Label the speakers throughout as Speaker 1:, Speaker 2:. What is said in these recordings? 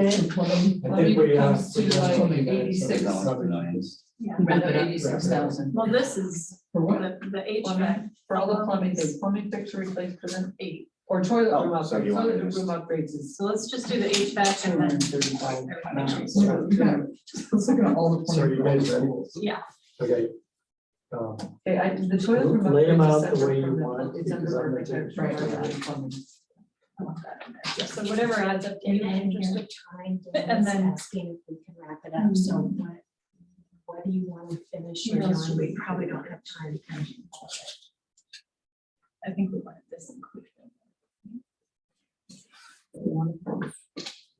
Speaker 1: in for them,
Speaker 2: I
Speaker 1: I
Speaker 2: think
Speaker 1: think it
Speaker 2: we have.
Speaker 1: comes to
Speaker 2: we have
Speaker 1: like
Speaker 2: something that is
Speaker 1: eighty-six,
Speaker 2: about
Speaker 1: rather
Speaker 2: seven millions.
Speaker 3: Yeah.
Speaker 2: Wrap it up,
Speaker 1: eighty-six thousand.
Speaker 3: Well, this is
Speaker 1: For what?
Speaker 3: the, the HVAC.
Speaker 1: Plumbing, for all the plumbing, the plumbing fixture replaced for them eight, or toilet
Speaker 2: Oh,
Speaker 1: room
Speaker 2: so you
Speaker 1: upgrades,
Speaker 2: wanna
Speaker 1: toilet room
Speaker 2: just-
Speaker 1: upgrades is
Speaker 3: So let's just do the HVAC
Speaker 1: two hundred
Speaker 3: and then
Speaker 1: and thirty-five
Speaker 3: everything.
Speaker 1: pounds. So we're gonna- Let's look at all the
Speaker 2: So you
Speaker 1: plumbing.
Speaker 2: guys ready?
Speaker 1: goals.
Speaker 2: Okay. Um,
Speaker 1: Okay, I, the toilet room
Speaker 2: Lay 'em
Speaker 1: upgrades is
Speaker 2: out the way
Speaker 1: separate
Speaker 2: you
Speaker 1: from
Speaker 2: want
Speaker 1: the,
Speaker 2: it,
Speaker 1: it's
Speaker 2: because I'm
Speaker 1: under
Speaker 2: gonna take
Speaker 1: architect,
Speaker 2: a
Speaker 1: right,
Speaker 2: picture.
Speaker 1: under plumbing.
Speaker 3: So whatever adds up to
Speaker 4: In
Speaker 3: eight
Speaker 4: the interest of time,
Speaker 3: And
Speaker 4: Dan's
Speaker 3: then- Mm-hmm.
Speaker 4: asking if we can wrap it up, so what, what do you want to finish
Speaker 3: What
Speaker 4: your
Speaker 3: else
Speaker 4: on?
Speaker 3: do we-
Speaker 4: We probably don't have time to finish all of it.
Speaker 3: I think we wanted this included.
Speaker 1: And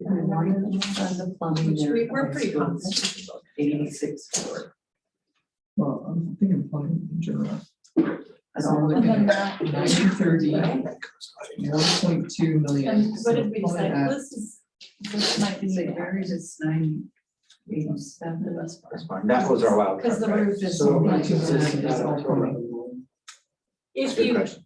Speaker 1: then on the plumbing
Speaker 3: Which
Speaker 1: there,
Speaker 3: we, we're
Speaker 1: okay,
Speaker 3: pretty
Speaker 1: so
Speaker 3: confident.
Speaker 1: Eighty-six for.
Speaker 5: Well, I'm thinking plumbing in general,
Speaker 1: So I'm looking at nine thirty, one point two million.
Speaker 3: And what
Speaker 1: So
Speaker 3: did we
Speaker 1: plumbing
Speaker 3: decide?
Speaker 1: at-
Speaker 5: uh,
Speaker 3: This is, this might be
Speaker 1: Say
Speaker 3: bigger,
Speaker 1: Mary's is nine eighty-seven.
Speaker 2: That's fine, that was our wild
Speaker 3: because
Speaker 2: card,
Speaker 3: the
Speaker 2: right?
Speaker 3: roof is.
Speaker 2: So
Speaker 1: like
Speaker 2: it's just-
Speaker 1: that, it's all plumbing.
Speaker 3: If
Speaker 2: Good
Speaker 3: you,
Speaker 2: question.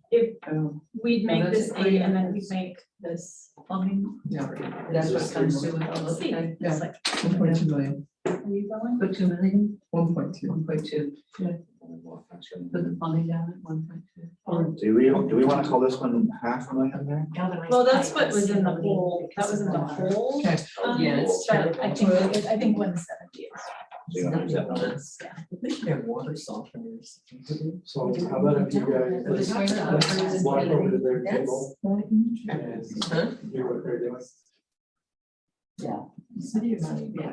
Speaker 1: Oh,
Speaker 3: we'd
Speaker 1: Well,
Speaker 3: make
Speaker 1: that's
Speaker 3: this
Speaker 1: a
Speaker 3: eight and then
Speaker 1: three.
Speaker 3: we'd make this plumbing.
Speaker 5: yeah,
Speaker 1: That's what comes to with all of
Speaker 3: C.
Speaker 1: that.
Speaker 3: It's like,
Speaker 5: one point two million,
Speaker 3: are you going?
Speaker 1: Put two million,
Speaker 5: one point two.
Speaker 1: one point two, put the plumbing down at one point two.
Speaker 4: Um,
Speaker 2: Do we, do we want to call this one half a million there?
Speaker 4: galvanized
Speaker 3: Well, that's
Speaker 4: pipe
Speaker 3: what was in the
Speaker 4: facility
Speaker 3: whole, that
Speaker 4: because
Speaker 3: was
Speaker 4: of
Speaker 3: in the
Speaker 4: the-
Speaker 3: whole.
Speaker 5: Okay.
Speaker 3: um,
Speaker 1: Yeah, it's
Speaker 3: But I think,
Speaker 1: terrible.
Speaker 3: I think one seventy is.
Speaker 2: Do you want to use that number?
Speaker 1: They should have water softeners.
Speaker 2: So how about if you guys,
Speaker 1: But the
Speaker 2: let's,
Speaker 1: toilet upgrades
Speaker 2: let's
Speaker 1: is
Speaker 2: walk over to
Speaker 1: really-
Speaker 2: their
Speaker 1: that's-
Speaker 2: table and
Speaker 1: Huh?
Speaker 2: do what they're doing.
Speaker 1: City of Miami, yeah.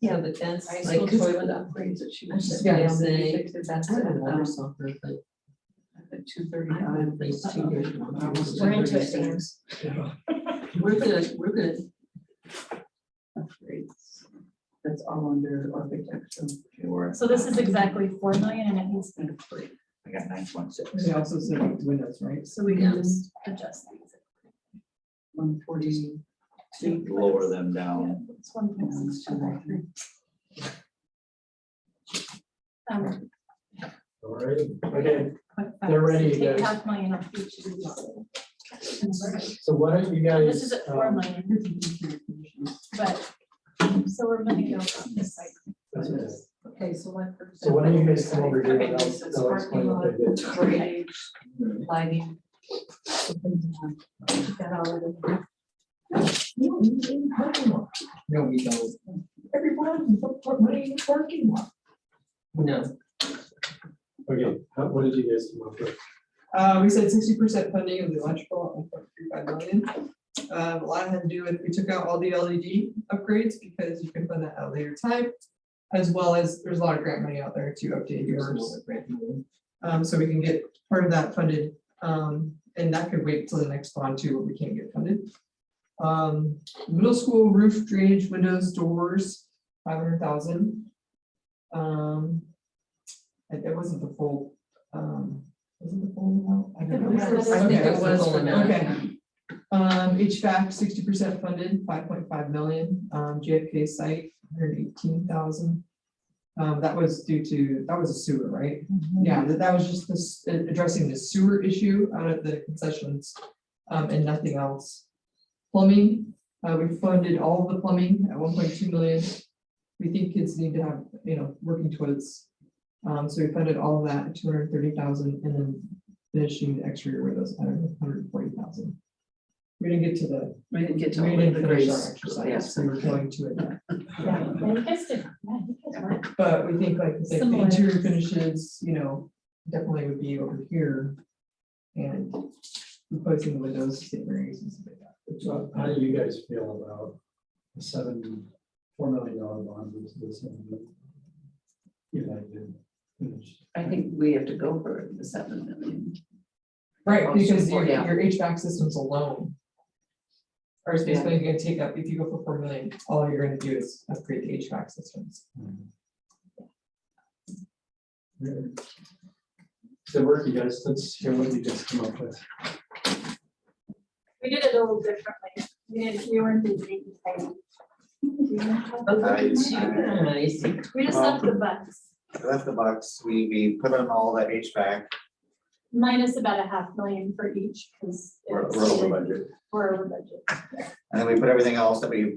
Speaker 6: Yeah.
Speaker 1: So the tents,
Speaker 6: High
Speaker 1: like
Speaker 6: school
Speaker 1: toilet upgrades that she was
Speaker 5: Yeah.
Speaker 1: saying, they, that's
Speaker 6: I
Speaker 1: at,
Speaker 6: don't know.
Speaker 1: um, at two thirty-five, there's two thirty, almost
Speaker 4: We're into it,
Speaker 1: 236. We're gonna, we're gonna. Upgrades, that's all under architecture.
Speaker 2: Okay, we're-
Speaker 3: So this is exactly four million and it needs to be three,
Speaker 2: I got nine point six.
Speaker 5: They also said about the windows, right?
Speaker 3: so we can just adjust these.
Speaker 1: One forty.
Speaker 2: Lower them down.
Speaker 3: Yeah, It's one point six two nine three. Um,
Speaker 2: All right, okay,
Speaker 3: but five,
Speaker 2: They're ready,
Speaker 3: six, eight,
Speaker 2: guys.
Speaker 3: half million off each of these. And so
Speaker 2: so why don't you guys?
Speaker 3: This is at four
Speaker 2: um,
Speaker 3: million, but, um, so we're gonna go from this side.
Speaker 2: that's it.
Speaker 1: Okay, so what?
Speaker 2: So why don't you guys come over here and I'll,
Speaker 1: Okay, so it's
Speaker 2: I'll explain what they did.
Speaker 1: parking lot, drainage, Lighting.
Speaker 4: Got all of it.
Speaker 5: No, we don't. Parking lot. No, we don't. Everyone, put- put money in the parking lot.
Speaker 1: No.
Speaker 2: Okay, how- what did you guys come up with?
Speaker 5: Uh, we said sixty percent funding of the electrical, at one point three five million. Uh, a lot had to do with, we took out all the LED upgrades because you can fund that at a later time. As well as, there's a lot of grant money out there to update yours. Um, so we can get part of that funded, um, and that could wait till the next bond too, but we can't get funded. Um, middle school roof drainage, windows, doors, five hundred thousand. Um, and that wasn't the full, um, wasn't the full amount? I
Speaker 1: I
Speaker 5: don't
Speaker 1: think
Speaker 5: know.
Speaker 1: it was
Speaker 5: Okay.
Speaker 1: for now.
Speaker 5: Okay. Um, HVAC, sixty percent funded, five point five million, um, JFK site, hundred eighteen thousand. Um, that was due to, that was a sewer, right?
Speaker 1: Mm-hmm.
Speaker 5: Yeah, that, that was just this, uh, addressing the sewer issue out of the concessions, um, and nothing else. Plumbing, uh, we funded all of the plumbing at one point two million. We think kids need to have, you know, working toilets. Um, so we funded all of that, two hundred thirty thousand, and then finishing the exterior windows, at hundred forty thousand. We didn't get to the,
Speaker 1: We didn't get to.
Speaker 5: we
Speaker 1: all of
Speaker 5: didn't
Speaker 1: the
Speaker 5: finish
Speaker 1: grades.
Speaker 5: our exercise,
Speaker 1: Yes.
Speaker 5: so we're going to it.
Speaker 3: Yeah, you guys did, yeah, you guys were.
Speaker 5: But we think like, the
Speaker 3: Similar.
Speaker 5: interior finishes, you know, definitely would be over here. And replacing the windows, St. Mary's and stuff like that.
Speaker 2: So How do you guys feel about a seven, four million dollar bond versus this? one? You like to finish?
Speaker 1: I think we have to go for the seven million.
Speaker 5: Right, because your,
Speaker 1: Support, yeah.
Speaker 5: your HVAC systems alone. Are basically gonna take up, if you go for four million, all you're gonna do is upgrade the HVAC systems.
Speaker 2: Good work, you guys. Let's hear what you guys come up with.
Speaker 3: We did it a little differently. We didn't, we weren't the big thing.
Speaker 7: Nice.
Speaker 1: Nice.
Speaker 3: We just left the bucks,
Speaker 7: I left the box, we, we put on all that HVAC,
Speaker 3: minus about a half million for each, because.
Speaker 7: we're, we're over budget.
Speaker 3: We're over budget.
Speaker 7: And then we put everything else that we